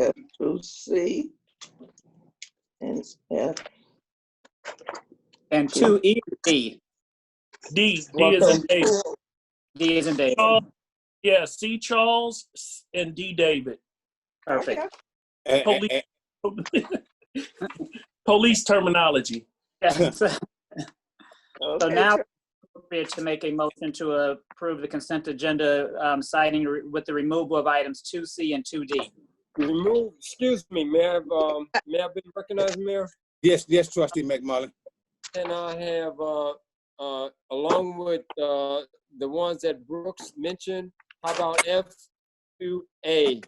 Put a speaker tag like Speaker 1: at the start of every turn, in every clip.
Speaker 1: F through C, and F.
Speaker 2: And two E is D.
Speaker 3: D, D is in David.
Speaker 2: D is in David.
Speaker 3: Charles, yeah, C Charles S- and D David.
Speaker 2: Perfect.
Speaker 4: And- and-
Speaker 3: Police. Police terminology.
Speaker 2: Yes. So
Speaker 1: Okay,
Speaker 2: now it's appropriate to make a motion to approve the consent agenda um, citing re- with the removal of items two C and two D.
Speaker 5: Remove, excuse me, may I have, um, may I be recognized, Mayor?
Speaker 4: Yes, yes, trustee McMullin.
Speaker 5: Can I have, uh, uh, along with, uh, the ones that Brooks mentioned, how about F two A?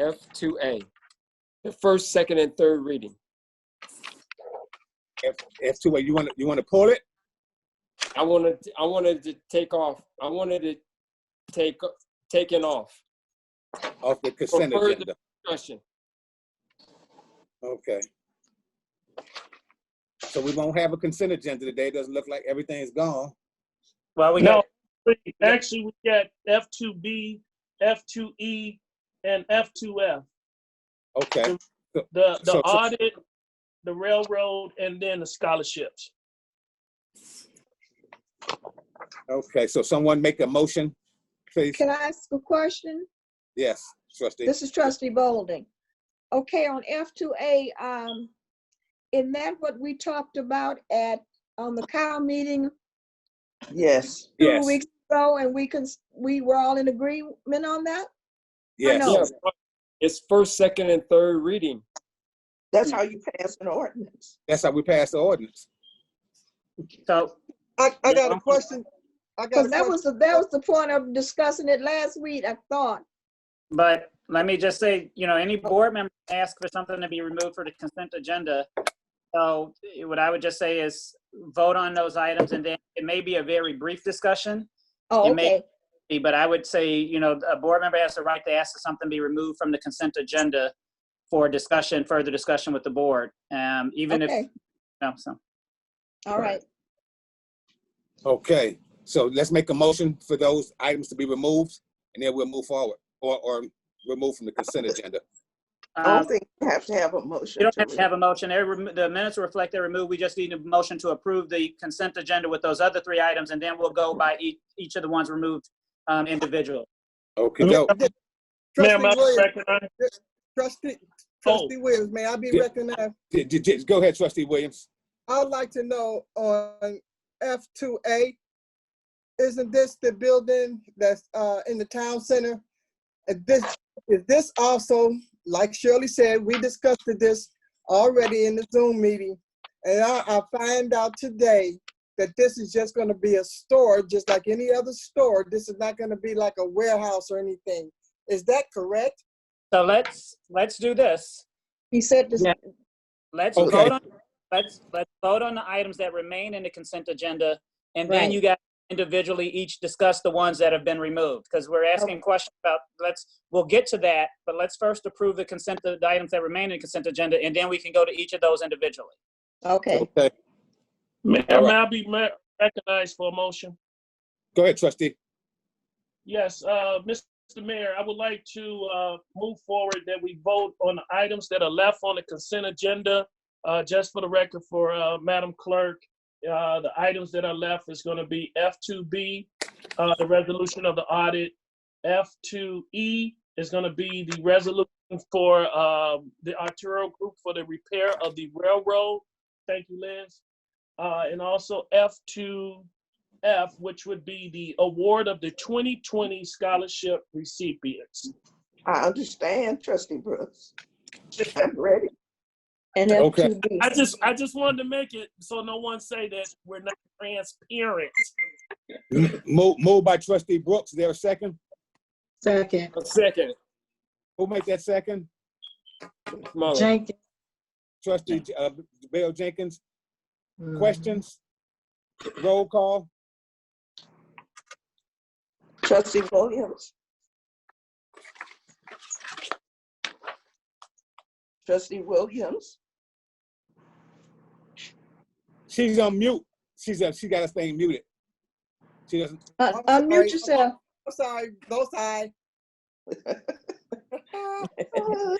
Speaker 5: F two A, the first, second, and third reading.
Speaker 4: F two, you want, to you want to pull it?
Speaker 5: I wanted, I wanted to take off, I wanted to take, taken off,
Speaker 4: Off the consent
Speaker 5: further-
Speaker 4: agenda.
Speaker 5: question.
Speaker 4: Okay. So we won't have a consent agenda today. It Doesn't look like everything's gone.
Speaker 2: Well, we
Speaker 3: No,
Speaker 2: got,
Speaker 3: actually, we got F2B, F2E, E, and F2F.
Speaker 4: Okay,
Speaker 3: The,
Speaker 4: So-
Speaker 3: the
Speaker 4: so-
Speaker 3: audit, the railroad, and then the scholarships.
Speaker 4: okay. So someone make a motion, please.
Speaker 6: Can I ask a question?
Speaker 4: Yes, trustee.
Speaker 6: This is trustee Bolding. Okay, on F2A, um, isn't that what we talked about at, on the cow meeting
Speaker 1: Yes,
Speaker 6: two
Speaker 4: Yes,
Speaker 6: weeks ago? And we can, we were all in agreement on that?
Speaker 4: yes.
Speaker 6: no.
Speaker 4: Oh.
Speaker 5: Yeah, It's first, second, and third reading.
Speaker 1: that's how you pass an ordinance.
Speaker 4: That's how we pass the ordinance.
Speaker 2: so,
Speaker 7: I, I got a question. I got a
Speaker 6: Because that
Speaker 7: question.
Speaker 6: was, the that was the point of discussing it last week, I thought.
Speaker 2: but let me just say, you know, any board member can ask for something to be removed for the consent agenda. So eh, what I would just say is vote on those items and then it may be a very brief discussion.
Speaker 6: Oh,
Speaker 2: It may-
Speaker 6: okay.
Speaker 2: be, but I would say, you know, a board member has the right to ask that something be removed from the consent agenda for discussion, further discussion with the board, um, even if,
Speaker 6: Okay.
Speaker 2: no, so,
Speaker 6: All right.
Speaker 4: Okay, so let's make a motion for those items to be removed and then we'll move forward or, or remove from the consent agenda.
Speaker 1: I
Speaker 2: um,
Speaker 1: don't think you have to have a motion.
Speaker 2: you don't
Speaker 1: to
Speaker 2: have to have a motion, They're remo- the minutes reflect they're removed, we just need a motion to approve the consent agenda with those other three items, and then we'll go by each, each of the ones removed, um, individually.
Speaker 4: Okay, go.
Speaker 3: Ma'am,
Speaker 7: Trustee
Speaker 3: I Oh.
Speaker 7: Williams,
Speaker 3: recognize,
Speaker 7: trustee, trustee Williams, may I be
Speaker 4: Yeah.
Speaker 7: recognized?
Speaker 4: J- j- j- Go ahead, trustee Williams.
Speaker 7: I would like to know on F two A, isn't this the building that's, uh, in the town center? Is this, is this also, like Shirley said, we discussed this already in the Zoom meeting. And I, I find out today that this is just gonna be a store, just like any other store. This is not gonna be like a warehouse or anything. Is that correct?
Speaker 2: So let's, let's do this,
Speaker 6: He said this,
Speaker 2: Yeah. let's
Speaker 4: Okay.
Speaker 2: vote on, let's, let's vote on the items that remain in the consent agenda, and then
Speaker 6: Right.
Speaker 2: you guys individually each discuss the ones that have been removed, because we're asking questions about, let's, we'll get to that, but let's first approve the consent, the items that remain in the consent agenda, and then we can go to each of those individually.
Speaker 6: okay.
Speaker 4: Okay,
Speaker 3: may
Speaker 4: All
Speaker 3: may
Speaker 4: right.
Speaker 3: I be ma- recognized for a motion?
Speaker 4: go ahead, trustee.
Speaker 3: Yes, uh, Mr. Mayor, I would like to uh, move forward that we vote on the items that are left on the consent agenda. Uh, Just for the record, for uh, Madam Clerk, uh, the items that are left is going to be F2B, uh, the resolution of the audit. F2E is going to be the resolution for um, the Arturo Group for the repair of the railroad. Thank you, Liz. Uh, And also F2, F, which would be the award of the 2020 scholarship recipients.
Speaker 1: I understand, trustee Brooks. I'm ready.
Speaker 6: And
Speaker 4: Okay.
Speaker 6: F2B.
Speaker 3: I just, I just wanted to make it so no one say that we're not transparent.
Speaker 4: M- Move, moved by trustee Brooks. Is there a second?
Speaker 8: Second,
Speaker 5: A second,
Speaker 4: Who make that second?
Speaker 5: Mullins.
Speaker 8: Jenkins.
Speaker 4: Trustee uh, Bill Jenkins. Questions? Roll call.
Speaker 1: Trustee Williams. Trustee Williams,
Speaker 4: She's on mute. She's uh, she got us thing muted. She doesn't.
Speaker 6: Uh, Un- Unmute yourself.
Speaker 7: I'm sorry, both sides.
Speaker 6: Aye.